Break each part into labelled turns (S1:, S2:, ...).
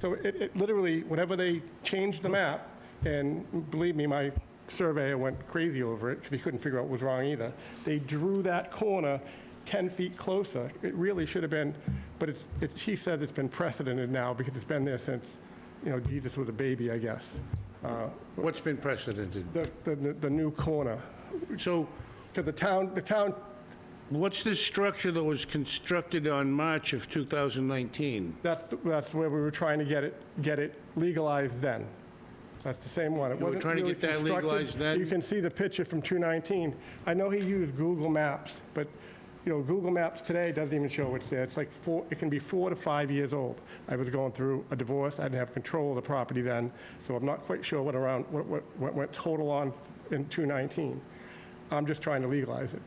S1: So it, it literally, whenever they changed the map, and believe me, my surveyor went crazy over it because he couldn't figure out what was wrong either. They drew that corner 10 feet closer. It really should have been, but it's, it's, he says it's been precedented now because it's been there since, you know, Jesus was a baby, I guess. Uh,
S2: What's been precedented?
S1: The, the, the new corner.
S2: So
S1: Because the town, the town,
S2: what's this structure that was constructed on March of 2019?
S1: that's, that's where we were trying to get it, get it legalized then. That's the same one. It
S2: were
S1: wasn't
S2: trying to
S1: really
S2: get that
S1: constructed.
S2: legalized then?
S1: You can see the picture from 219. I know he used Google Maps, but, you know, Google Maps today doesn't even show what's there. It's like four, it can be four to five years old. I was going through a divorce, I didn't have control of the property then, so I'm not quite sure what around, what, what, what went total on in 219. I'm just trying to legalize it.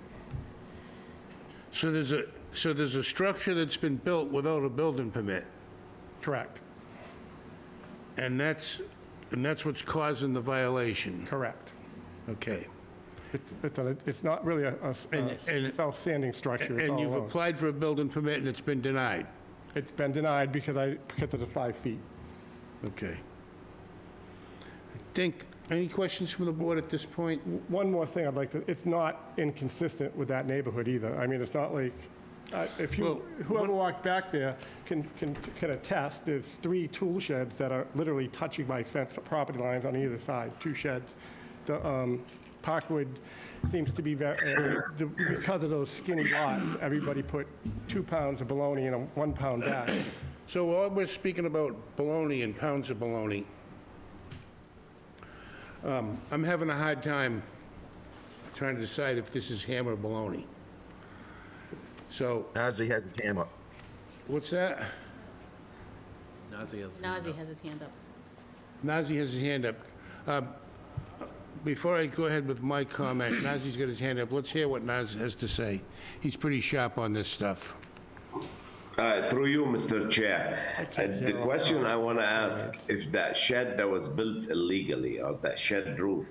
S2: So there's a, so there's a structure that's been built without a building permit,
S1: Correct,
S2: and that's, and that's what's causing the violation?
S1: correct.
S2: Okay.
S1: It's, it's, a- it's not really a, a-
S2: And-
S1: a
S2: and-
S1: self-standing structure, it's
S2: And
S1: all
S2: you've
S1: alone.
S2: applied for a building permit and it's been denied?
S1: It's been denied because I, because of the five feet.
S2: Okay. I think, any questions from the board at this point?
S1: One more thing I'd like to, it's not inconsistent with that neighborhood either. I mean, it's not like, uh, if
S2: Well,
S1: you, whoever walked back there can, can, can attest, there's three tool sheds that are literally touching my fence, property lines on either side, two sheds. The, um, Parkwood seems to be very, because of those skinny lots, everybody put two pounds of bologna in a one pound bag.
S2: So while we're speaking about bologna and pounds of bologna, um, I'm having a hard time trying to decide if this is ham or bologna. So,
S3: Najee has his hand up.
S2: what's that?
S4: Nazi has.
S5: Nazi has his hand up.
S2: Nazi has his hand up. Uh, Before I go ahead with my comment, Nazi's got his hand up. Let's hear what Nazi has to say. He's pretty sharp on this stuff.
S6: Uh, Through you, Mr. Chair. Uh, The question I want to ask, if that shed that was built illegally or that shed roof,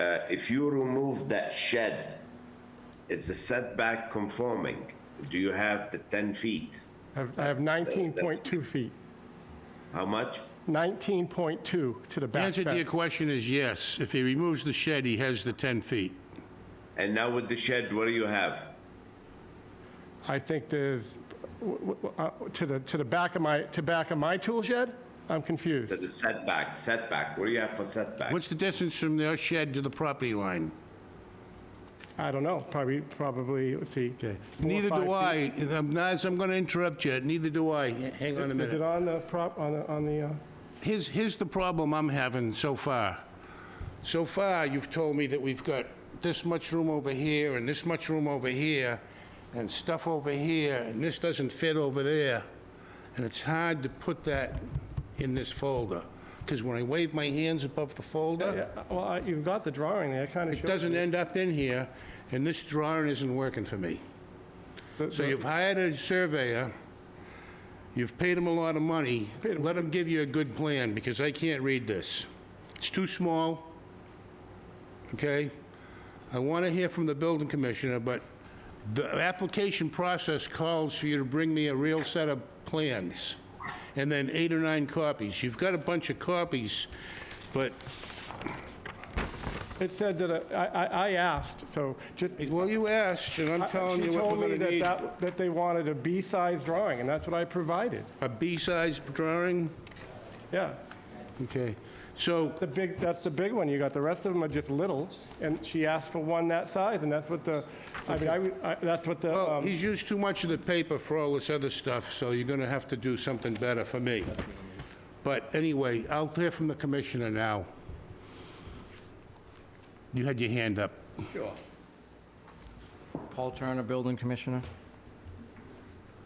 S6: uh, if you remove that shed, is the setback conforming? Do you have the 10 feet?
S1: I have- I have 19.2 feet,
S6: How much?
S1: 19.2 to the
S2: The
S1: back
S2: answer to your
S1: fence.
S2: question is yes. If he removes the shed, he has the 10 feet.
S6: And now with the shed, what do you have?
S1: I think there's, w- w- uh, to the, to the back of my, to back of my tool shed? I'm confused.
S6: The setback, setback, what do you have for setback?
S2: What's the distance from their shed to the property line?
S1: I don't know, probably, probably, let's see.
S2: Okay.
S1: four or
S2: Neither
S1: five
S2: do
S1: feet.
S2: I. I'm- Naz, I'm going to interrupt you. Neither do I. Hang on a
S1: Is it
S2: minute.
S1: on the prop, on the, on the, uh,
S2: Here's, here's the problem I'm having so far. So far, you've told me that we've got this much room over here and this much room over here and stuff over here and this doesn't fit over there. And it's hard to put that in this folder because when I wave my hands above the
S1: yeah,
S2: folder,
S1: well, I- you've got the drawing there, kind of
S2: it
S1: shows.
S2: doesn't end up in here and this drawing isn't working for me.
S1: the-
S2: So
S1: the-
S2: you've hired a surveyor, you've paid him a lot of money,
S1: Paid him.
S2: let him give you a good plan, because I can't read this. It's too small, okay? I want to hear from the building commissioner, but the application process calls for you to bring me a real set of plans, and then eight or nine copies. You've got a bunch of copies, but,
S1: It said that, uh, I, I- I asked, so just.
S2: well, you asked, and I'm telling you what we're going to
S1: Uh, She told me
S2: need.
S1: that that, that they wanted a B-size drawing, and that's what I provided,
S2: A B-size drawing?
S1: yeah.
S2: Okay, so...
S1: The big, that's the big one you got. The rest of them are just little, and she asked for one that size, and that's what the, I mean, I would- I, that's what the,
S2: Well,
S1: um,
S2: he's used too much of the paper for all this other stuff, so you're gonna have to do something better for me. But anyway, I'll hear from the commissioner now. You had your hand up.
S4: Paul Turner, Building Commissioner.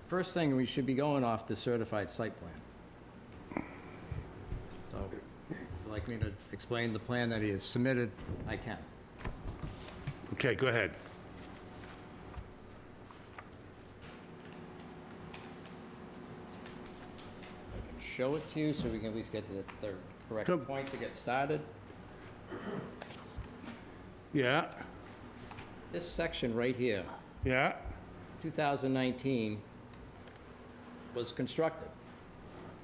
S4: First thing, we should be going off the certified site plan. So, if you'd like me to explain the plan that he has submitted, I can.
S2: Okay, go ahead.
S4: I can show it to you, so we can at least get to the third
S2: Come.
S4: correct point to get started.
S2: Yeah,
S4: This section right here,
S2: yeah,
S4: 2019, was constructed.